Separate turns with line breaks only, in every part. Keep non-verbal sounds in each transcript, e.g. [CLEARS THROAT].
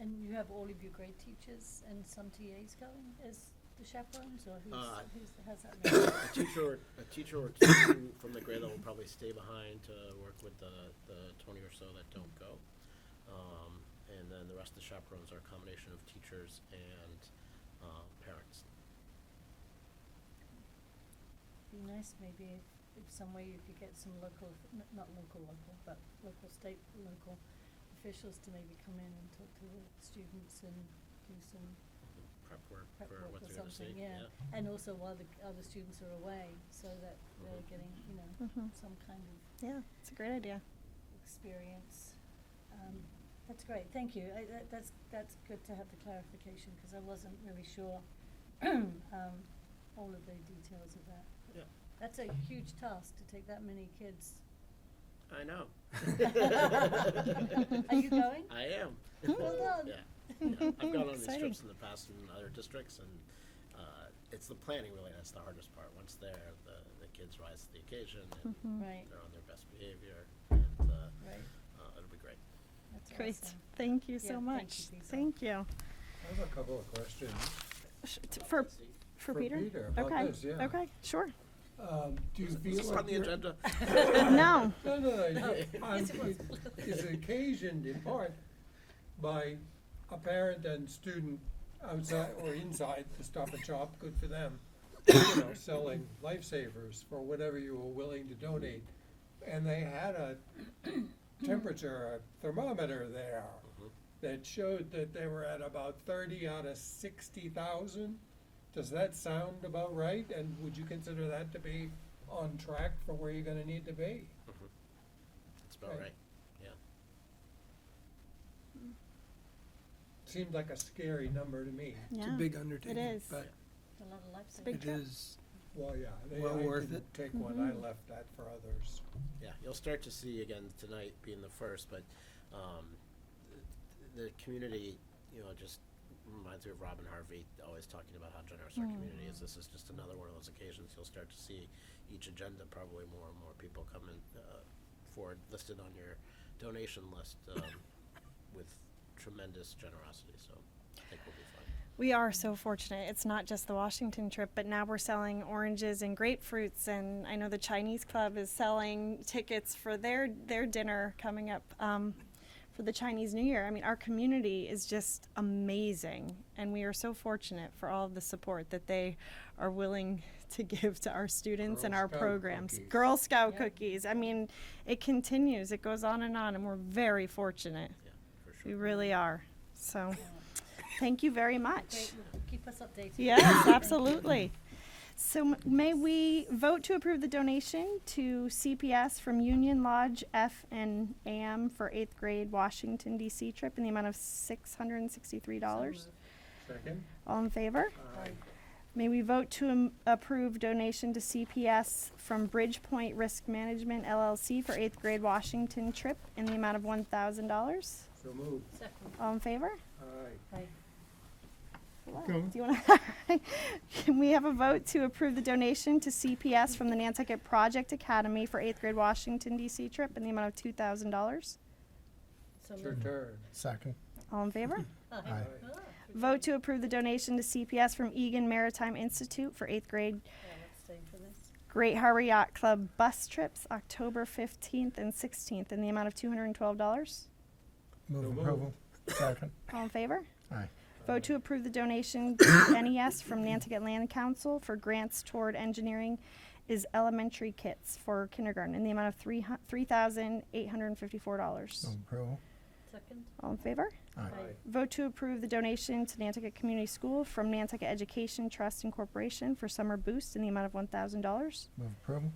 And you have all of your grade teachers and some TAs going as the chaperones, or who's,
Uh,
who's, how's that? made?
A teacher or, a teacher or two from the grade level will probably stay behind to work with the, the twenty or so that don't go. Um, and then the rest of the chaperones are a combination of teachers and, uh, parents.
Be nice maybe if, if some way you could get some local, n- not local, local, but local, state, local officials to maybe come in and talk to the students and do some
Prep work
prep
for
work
what
or
they're gonna see,
something,
yeah.
yeah. And also while the other students are away, so that they're
Mhm.
getting, you know,
Mhm.
some kind of
Yeah, it's a great idea.
experience. Um, that's great, thank you. I, that, that's, that's good to have the clarification, because I wasn't really sure, [CLEARS THROAT] um, all of the details of that.
Yeah.
That's a huge task to take that many kids.
I know.
Are you going?
I am.
Well done.
Yeah, yeah. I've gone on these
Exciting.
trips in the past in other districts and, uh, it's the planning really that's the hardest part. Once there, the, the kids rise to the occasion and
Mhm.
Mm-hmm. Right,
they're on their best behavior and, uh,
right,
uh, it'll be great.
that's awesome.
Great. Thank you
Yeah,
so
thank
much.
you, Lisa.
Thank you.
I have a couple of questions.
Sh- t- For, for
For
Peter?
Peter, about
Okay,
this, yeah.
Okay, sure.
Um, Do you
Is
feel
this on
like
the
you're-
agenda?
[LAUGHS]
No,
No,
[LAUGHS]
no, no.
[LAUGHS]
Yes, it was.
It's occasioned in part by a parent and student outside or inside the Stop and Shop, good for them, you know, selling lifesavers for whatever you were willing to donate. And they had a temperature, a thermometer there that showed that they were at about thirty out of sixty thousand. Does that sound about right? And would you consider that to be on track for where you're gonna need to be?
That's Mm-hmm. about
Right.
right, yeah.
Seemed like a scary number to me.
It's a
yeah.
big undertaking,
is.
but
A lot of life.
big
it is,
Well, yeah, they,
Well
I
worth
didn't take one, I
Mm-hmm.
left that for others.
Yeah, you'll start to see again tonight being the first, but um, th- the community, you know, just reminds me of Robin Harvey always talking about how generous our community is. This is just another one of those occasions you'll start to see each agenda probably more and more people coming uh, forward listed on your donation list um, with tremendous generosity. So I think we'll be fine.
We are so fortunate. It's not just the Washington trip, but now we're selling oranges and grapefruits, and I know the Chinese Club is selling tickets for their their dinner coming up um, for the Chinese New Year. I mean, our community is just amazing, and we are so fortunate for all of the support that they are willing to give to our students and
Girl
our
Scout
programs.
cookies.
Girl Scout
Yeah.
cookies. I mean, it continues. It goes on and on, and we're very fortunate.
Yeah, for sure.
We really are. So, thank you very much.
Great, well, keep us updated. [LAUGHS]
Yes, absolutely. So m- may we vote to approve the donation to CPS from Union Lodge F and AM for eighth grade Washington DC trip in the amount of six hundred and sixty-three dollars.
Second?
All in favor? May we vote to am- approve donation to CPS from Bridgepoint Risk Management LLC for eighth grade Washington trip in the amount of one thousand dollars.
So moved,
Second,
All in favor?
aye.
right.
Wow.
Go.
Do you want to? [LAUGHS] Can we have a vote to approve the donation to CPS from the Nantucket Project Academy for eighth grade Washington DC trip in the amount of two thousand dollars?
So
It's your
moved.
turn.
Second.
All in favor?
Aye.
Aye.
Ah,
Vote to approve the donation to CPS from Egan Maritime Institute for eighth grade
yeah, let's stay for this.
Great Harbor Yacht Club bus trips October fifteenth and sixteenth in the amount of two hundred and twelve dollars.
So
Move
moved.
approval. Second.
All in favor?
Aye.
Vote to approve the donation [COUGHS] to NES from Nantucket Land Council for grants toward engineering is elementary kits for kindergarten in the amount of three hu- $3,854.
Move approval.
Second,
All in favor?
Aye.
Aye.
Vote to approve the donation to Nantucket Community School from Nantucket Education Trust Incorporation for summer boost in the amount of $1,000.
Move approval.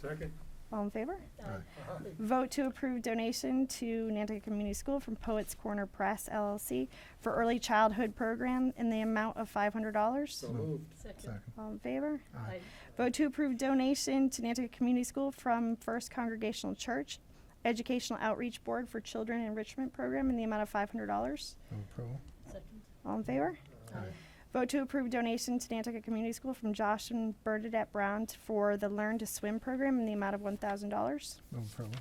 Second? Uh-huh.
All in favor?
Aye.
Aye.
Vote to approve donation to Nantucket Community School from Poets Corner Press LLC for early childhood program in the amount of $500.
So moved,
second,
Second.
All in favor?
Aye.
aye.
Vote to approve donation to Nantucket Community School from First Congregational Church Educational Outreach Board for Children Enrichment Program in the amount of $500.
Move approval.
Second,
All in favor?
Aye.
Vote to approve donation to Nantucket Community School from Josh and Bernadette Brown t- for the Learn to Swim program in the amount of $1,000.
Move approval.